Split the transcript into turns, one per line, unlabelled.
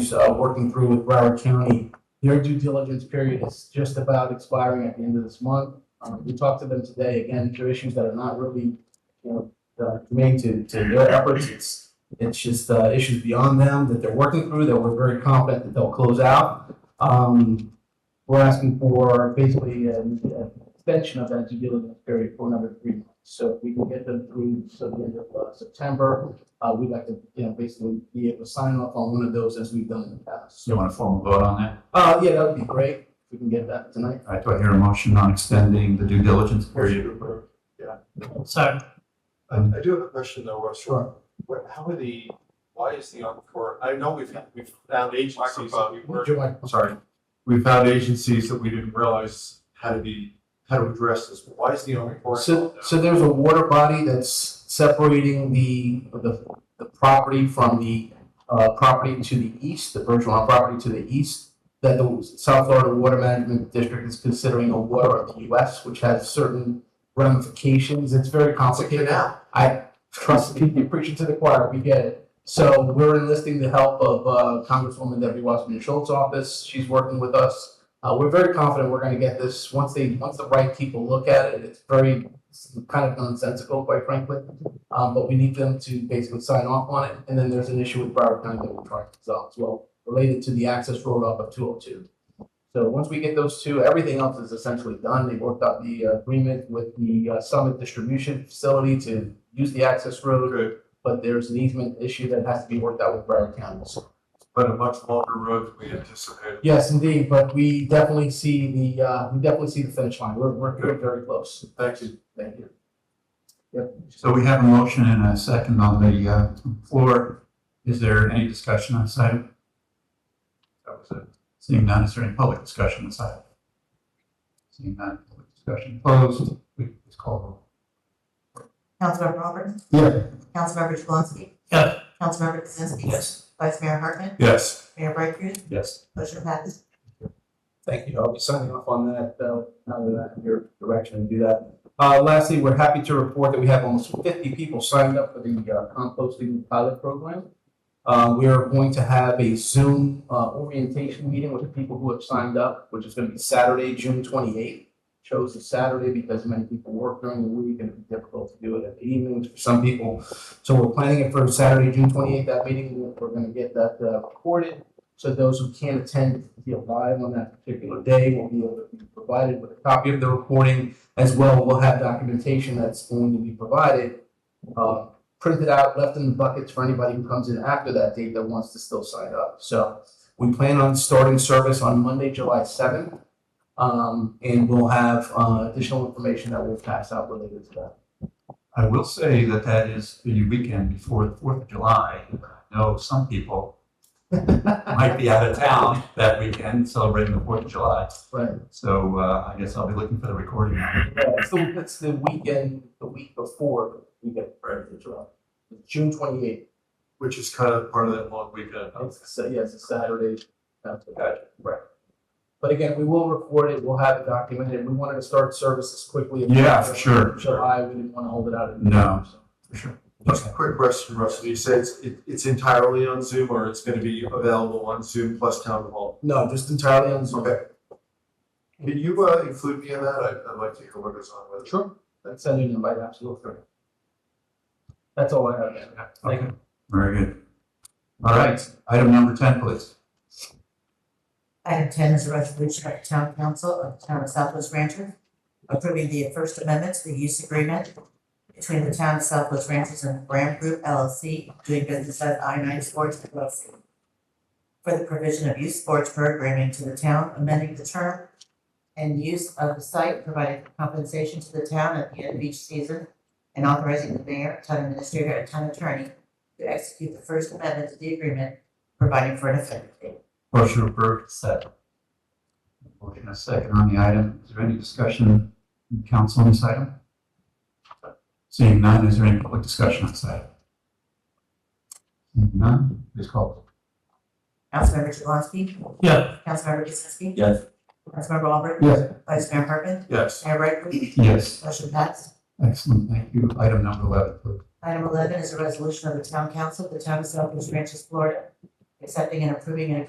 is, uh, working through with Broward County. Their due diligence period is just about expiring at the end of this month. Um, we talked to them today, again, there are issues that are not really, you know, uh, made to, to their efforts. It's, it's just, uh, issues beyond them that they're working through, that we're very confident that they'll close out. Um, we're asking for basically an an extension of that due diligence period for another three months. So if we can get them through, so the end of uh, September, uh, we'd like to, you know, basically be able to sign off on one of those as we've done in the past.
You want a formal vote on that?
Uh, yeah, that would be great, if we can get that tonight.
All right, do I hear a motion on extending the due diligence period?
Sorry.
I, I do have a question though, Russ. What, how are the, why is the Encore, I know we've, we've found agencies that we were, sorry. We found agencies that we didn't realize how to be, how to address this, but why is the Encore?
So, so there's a water body that's separating the, the, the property from the, uh, property to the east, the Bergeron property to the east, that the South Florida Water Management District is considering a water of the US, which has certain ramifications. It's very complicated.
Canal.
I trust me, you're preaching to the choir. We get it. So we're enlisting the help of uh, Congresswoman Debbie Wasserman Schultz's office. She's working with us. Uh, we're very confident we're going to get this once they once the right people look at it. It's very it's kind of nonsensical, quite frankly. Um, but we need them to basically sign off on it. And then there's an issue with Broward County that we're trying to resolve as well, related to the access road off of 202. So once we get those two, everything else is essentially done. They worked out the uh, agreement with the uh, Summit Distribution Facility to use the access road,
Good,
but there's an easement issue that has to be worked out with Broward County.
but a much longer road than we anticipated.
Yes, indeed, but we definitely see the, uh, we definitely see the finish line. We're, we're we're very close.
Thank you.
Thank you.
So we have a motion and a second on the uh, floor. Is there any discussion on this item? That was it. Seeing none, is there any public discussion on this item? Seeing none, public discussion closed. We- Please call the roll.
Councilmember Auburn.
Yeah.
Councilmember Jablonski.
Yeah.
Councilmember Kaczynski.
Yes.
Vice Mayor Hartman.
Yes.
Mayor Bright Cruz.
Yes.
Motion passes.
Thank you. I'll be signing off on that, uh, now that I'm your direction to do that. Uh, lastly, we're happy to report that we have almost fifty people signed up for the uh, composting pilot program. Uh, we are going to have a Zoom, uh, orientation meeting with the people who have signed up, which is gonna be Saturday, June twenty-eighth. Chose the Saturday because many people work during the week and it's difficult to do it at the evenings for some people. So we're planning it for Saturday, June twenty-eighth, that meeting, we're gonna get that, uh, recorded. So those who can't attend the live on that particular day will be able to be provided with a copy of the recording. As well, we'll have documentation that's going to be provided, uh, printed out, left in the buckets for anybody who comes in after that date that wants to still sign up. So we plan on starting service on Monday, July seventh. Um, and we'll have, uh, additional information that we'll pass out related to that.
I will say that that is the weekend before the Fourth of July. I know some people might be out of town that weekend celebrating the Fourth of July.
Right.
So uh, I guess I'll be looking for the recording.
Yeah, it's the, uh, it's the weekend, the week before the weekend, right, it's around June twenty-eighth.
Which is kind of part of that long weekend.
Oh, It's, so, yes, it's Saturday. That's what got you. Right. But again, we will record it, we'll have it documented, we wanted to start service as quickly. as
Yeah,
possible.
sure, sure.
July, we didn't want to hold it out.
No. For sure.
Just a quick question, Russ. Do you say it's, it- it's entirely on Zoom or it's gonna be available on Zoom plus town hall?
No, just entirely on Zoom.
Okay. Can you, uh, include me in that? I'd, I'd like to hear what goes on with it.
Sure. That's send an invite, absolutely. That's all I have. man. Thank
Okay,
you.
very good. All right, item number ten, please.
Item ten is a resolution of the Town Council of the Town of Southwest Ranches approving the First Amendment to the use agreement between the Town of Southwest Ranches and Graham Group LLC doing business as I nine Sports LLC for the provision of youth sports programming to the town, amending the term and use of the site, providing compensation to the town at the end of each season, and authorizing the mayor, town administrator, and town attorney to execute the First Amendment to the agreement, providing for an effective date.
Motion approved, second. Motion and a second on the item. Is there any discussion in council on this item? Seeing none, is there any public discussion on this item? Seeing none, please call.
Councilmember Jablonski.
Yeah.
Councilmember Kaczynski.
Yes.
Councilmember Auburn.
Yes.
Vice Mayor Hartman.
Yes.
Mayor Brightfield.
Yes,
Motion passed.
excellent, thank you. Item number eleven, please.
Item eleven is a resolution of the Town Council of the Town of Southwest Ranches, Florida, accepting and approving an agreement